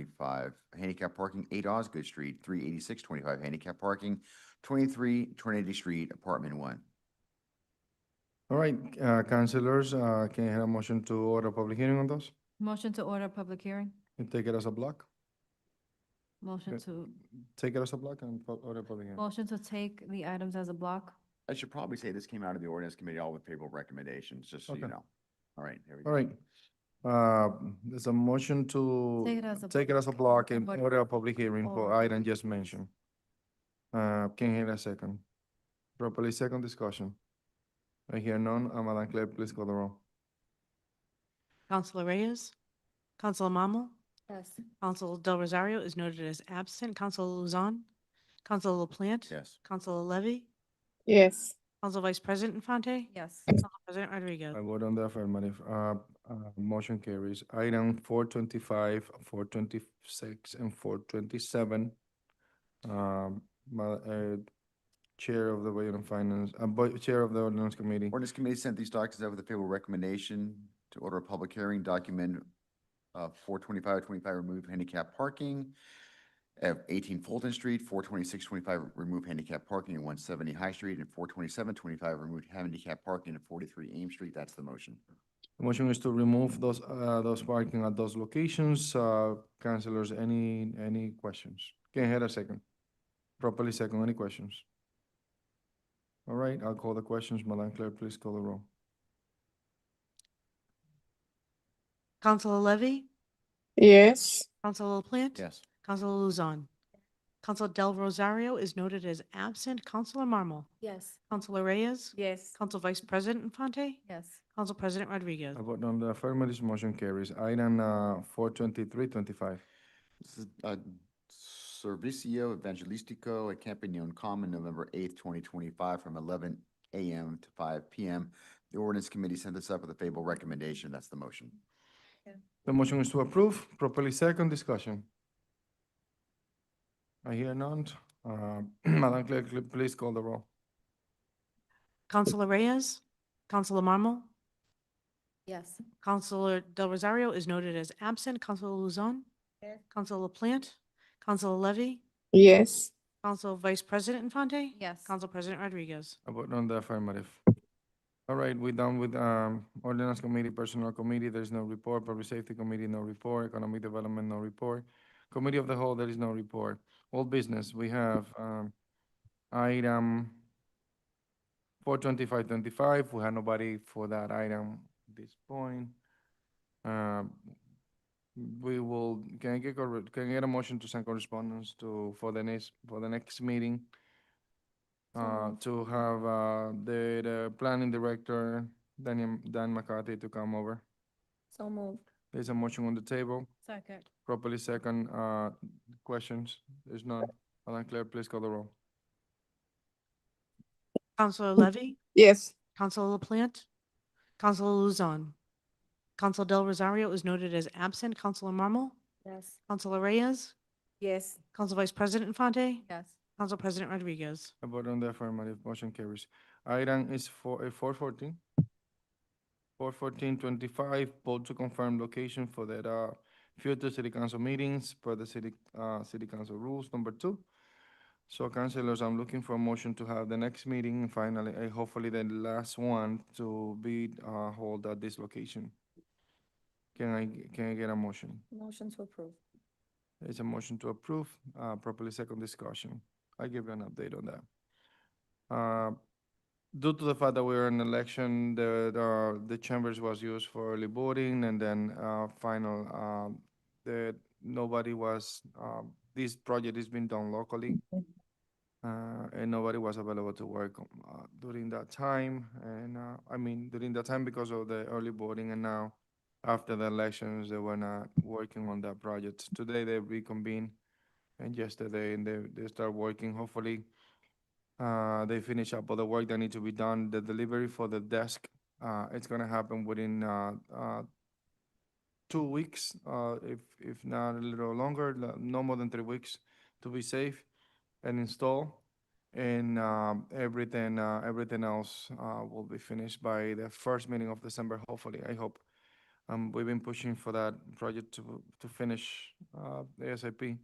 twenty-five handicap parking, eight Osgood Street, three eighty-six twenty-five handicap parking, twenty-three Trinity Street, apartment one. All right, uh, councilors, uh, can I have a motion to order public hearing on those? Motion to order public hearing. And take it as a block? Motion Okay. to, Take it as a block and pu- order public hearing. motion to take the items as a block. I should probably say this came out of the ordinance committee, all with favorable recommendations, just so you Okay. know. All right, there we All go. right, uh, there's a motion Take to it as a. take it as a block and But- order a public hearing for Or- item just mentioned. Uh, can I hear a second? Properly second discussion. I hear none, Uh, Madam Clerk, please call the roll. Councilor Reyes, Council Mammal, Yes. Council Del Rosario is noted as absent, Council Luzon, Council LaPlante, Yes. Council Levy, yes, Council Vice President Infante, Yes. Council President I Rodrigo. vote on the affirmative. Uh, uh, motion carries. Item four twenty-five, four twenty-six, and four twenty-seven. Um, my, uh, Chair of the Budget and Finance, uh, Bu- Chair of the Ordinance Committee. Ordinance Committee sent these documents out with a favorable recommendation to order a public hearing, document uh, 425, 25, remove handicap parking at 18 Fulton Street, 426, 25, remove handicap parking at 170 High Street, and 427, 25, remove handicap parking at 43 Ames Street. That's the motion. The Motion is to remove those, uh, those parking at those locations. Uh, councilors, any, any questions? Can I hear a second? Properly second, any questions? All right, I'll call the questions. Madam Clerk, please call the roll. Council Levy, yes, Council LaPlante. Yes. Council Luzon, Council Del Rosario is noted as absent, Councilor Marmal, Yes. Councilor Reyes, Yes. Council Vice President Infante, Yes. Council President I Rodrigo. vote on the affirmative, motion carries. Item, uh, four twenty-three twenty-five. This is uh, Servicio Evangelistico at Campanion Common, November 8th, 2025, from 11 a.m. to 5 p.m. The Ordinance Committee sent this up with a favorable recommendation. That's the motion. The motion is to approve, properly second, discussion. I hear none. Uh, Madam Clerk, cl- please call the roll. Councilor Reyes, Councilor Marmal, Yes. Councilor Del Rosario is noted as absent, Councilor Luzon, Yes. Council LaPlante, Council Levy, yes, Council Vice President Infante, Yes. Council President Rodriguez. I vote on the affirmative. All right, we're done with um, ordinance committee, personnel committee, there's no report, public safety committee, no report, economic development, no report. Committee of the whole, there is no report. All business, we have um, item four twenty-five twenty-five, we have nobody for that item at this point. Um, We will, can I get, corre- can I get a motion to send correspondence to, for the next, for the next meeting? uh, to have uh, the, the planning director, Daniel, Dan McCarthy, to come over. So moved. There's a motion on the table, Second. properly second, uh, questions, there's none. Madam Clerk, please call the roll. Councilor Levy, yes, Councilor LaPlante, Councilor Luzon, Council Del Rosario is noted as absent, Councilor Marmal, Yes. Councilor Reyes, Yes. Council Vice President Infante, Yes. Council President Rodriguez. I vote on the affirmative, motion carries. Item is for, uh, four fourteen. Four fourteen twenty-five, vote to confirm location for the, uh, future city council meetings per the city, uh, city council rules, number two. So councilors, I'm looking for a motion to have the next meeting, finally, uh, hopefully the last one to be, uh, held at this location. Can I, g- can I get a motion? Motion to approve. It's a motion to approve, uh, properly second discussion. I'll give you an update on that. Uh, Due to the fact that we were in election, the, the, the chambers was used for early voting and then, uh, final, um, that nobody was, um, this project is being done locally. Uh, and nobody was available to work, uh, during that time. And, uh, I mean, during that time because of the early voting and now after the elections, they were not working on that project. Today they reconvened and yesterday and they, they start working. Hopefully, uh, they finish up all the work that need to be done. The delivery for the desk, uh, it's gonna happen within, uh, uh, two weeks, uh, if, if not a little longer, no- no more than three weeks to be safe and install. And, um, everything, uh, everything else, uh, will be finished by the first meeting of December, hopefully, I hope. Um, we've been pushing for that project to, to finish, uh, ASAP.